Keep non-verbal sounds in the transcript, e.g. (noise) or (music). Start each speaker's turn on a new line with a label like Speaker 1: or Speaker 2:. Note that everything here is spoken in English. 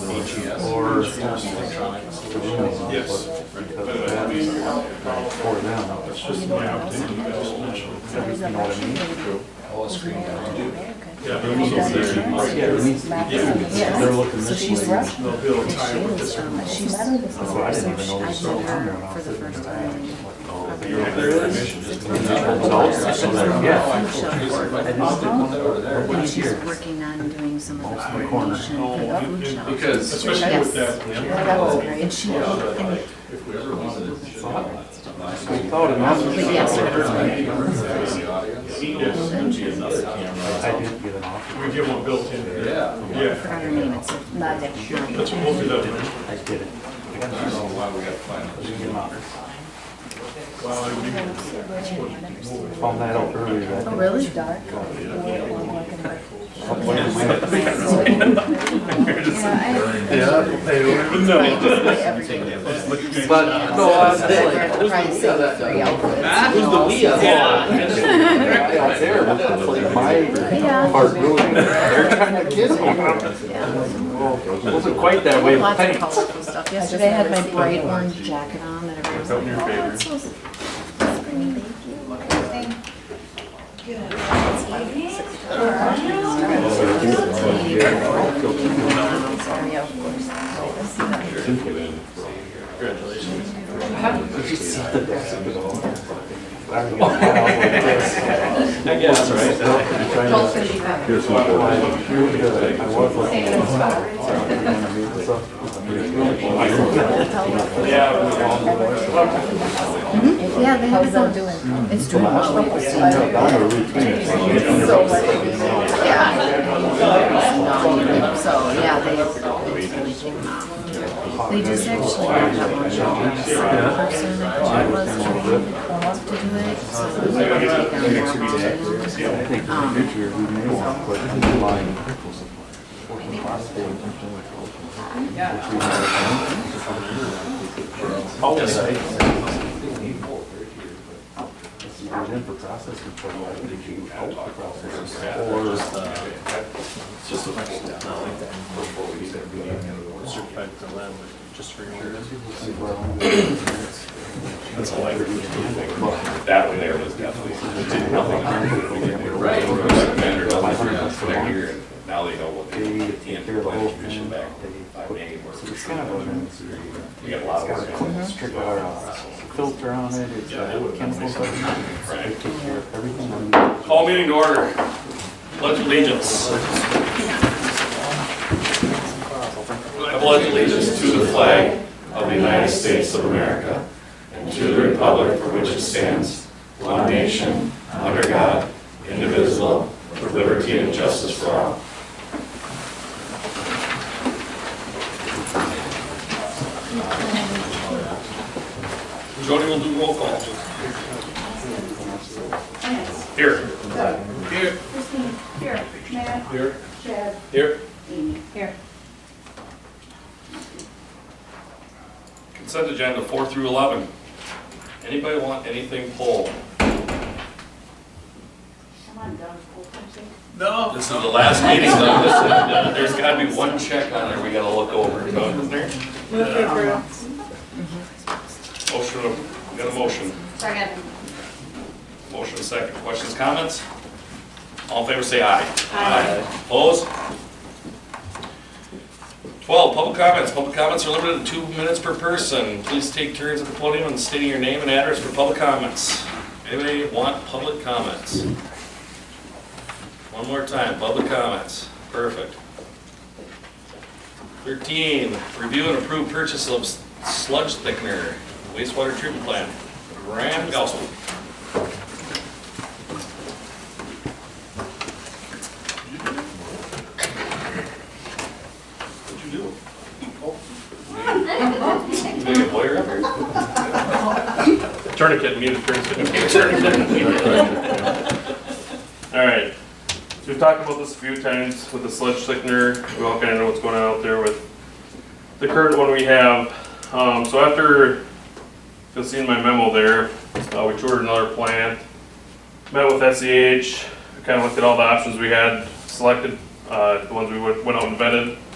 Speaker 1: or Yes. Because that is for them, it's just an opportunity. You know what I mean? All the screen down.
Speaker 2: Yeah,
Speaker 1: They need to see it. Right, yeah, it needs to be seen. They're looking
Speaker 3: So
Speaker 1: this
Speaker 3: she's
Speaker 1: way.
Speaker 3: Russian.
Speaker 2: they'll build
Speaker 3: And she
Speaker 2: time with
Speaker 3: is,
Speaker 2: this.
Speaker 3: um, she's met her this
Speaker 1: So I didn't
Speaker 3: summer,
Speaker 1: even
Speaker 3: so
Speaker 1: know this
Speaker 3: I
Speaker 1: was
Speaker 3: met
Speaker 1: coming when I
Speaker 3: her for
Speaker 1: was
Speaker 3: the
Speaker 1: sitting
Speaker 3: first
Speaker 1: in my
Speaker 3: time. And she's working on doing some of the coordination for the food shelf.
Speaker 4: Because-
Speaker 2: Especially with
Speaker 3: Yes.
Speaker 2: that.
Speaker 3: Yeah, that was great. And she, and
Speaker 2: If we ever wanted to.
Speaker 1: Thought enough.
Speaker 3: But yes, sir.
Speaker 1: I did get an offer.
Speaker 2: We give one built in.
Speaker 4: Yeah.
Speaker 3: I
Speaker 2: Yeah,
Speaker 3: forgot her name, it's not that sure.
Speaker 2: that's what we'll do that.
Speaker 1: I did it.
Speaker 4: I don't know why we got to find
Speaker 1: Didn't
Speaker 4: this.
Speaker 1: get an offer.
Speaker 2: Wow, I mean,
Speaker 1: Found that out earlier that
Speaker 3: Oh,
Speaker 1: day.
Speaker 3: really? Dark. Yeah,
Speaker 5: But no, I was
Speaker 3: I.
Speaker 5: like,
Speaker 3: I'd probably say three outfits.
Speaker 5: who's the we of all?
Speaker 3: (laughs)
Speaker 1: Yeah, there, but that's like my heart really, they're trying to get it. Well, Wasn't quite that way, but
Speaker 3: Lots of
Speaker 1: thanks.
Speaker 3: colorful stuff. Yesterday I had my bright orange jacket on that everyone was like, oh, that's so Sorry, yeah, of course. I see that.
Speaker 1: (laughs) I guess, right? I was like.
Speaker 3: Mm-hmm. Yeah, they have it doing. It's doing well. So what they do, yeah. So, yeah, they, it's really taken off. They just actually have that one job. Person that was trained up to do it, so it's really taken off. Um,
Speaker 1: Future, we may want, but in line. Oh, If you get in for process control, I think you out the process. Or.
Speaker 6: That way there was definitely, it did nothing. Right. They're here, and now they know what they,
Speaker 1: They
Speaker 6: and
Speaker 1: take care
Speaker 6: the
Speaker 1: of the whole
Speaker 6: planning
Speaker 1: thing.
Speaker 6: commission back
Speaker 1: They
Speaker 6: by
Speaker 1: put-
Speaker 6: May, where
Speaker 1: It's kind of a,
Speaker 6: we got a lot
Speaker 1: it's
Speaker 6: of
Speaker 1: got a
Speaker 6: work.
Speaker 1: clean strip or a filter on it, it's got chemicals. on it. They take care of everything. on it.
Speaker 6: Call meeting to order. Pledge allegiance. I pledge allegiance to the flag of the United States of America and to the republic for which it stands, one nation, under God, indivisible, with liberty and justice for all. Jody will do roll call. Here. Here.
Speaker 7: Christine, here, Matt,
Speaker 6: Here.
Speaker 7: Chad,
Speaker 6: Here.
Speaker 7: Amy, here.
Speaker 6: Consent agenda four through eleven. Anybody want anything pulled?
Speaker 7: Come on, Doug, we'll come see.
Speaker 6: No. This is the last meeting, so this is- there's gotta be one check on there we gotta look over. Motion, we got a motion.
Speaker 7: Second.
Speaker 6: Motion second. Questions, comments? All in favor, say aye. Aye. Opposed? Twelve, public comments. Public comments are limited to two minutes per person. Please take turns at the podium and stating your name and address for public comments. Anybody want public comments? One more time, public comments. Perfect. Thirteen, review and approve purchase of sludge thickener, wastewater treatment plant. Graham Gausel. What'd you do?
Speaker 7: (laughs)
Speaker 6: Make a lawyer up here? Tourniquet muted, tourniquet.
Speaker 8: All right. So we've talked about this a few times with the sludge thickener. We all kind of know what's going on out there with the current one we have. Um, so after, you'll see in my memo there, uh, we toured another plant, met with E SEH, kind of looked at all the options we had, selected, uh, the ones we went went out and vetted.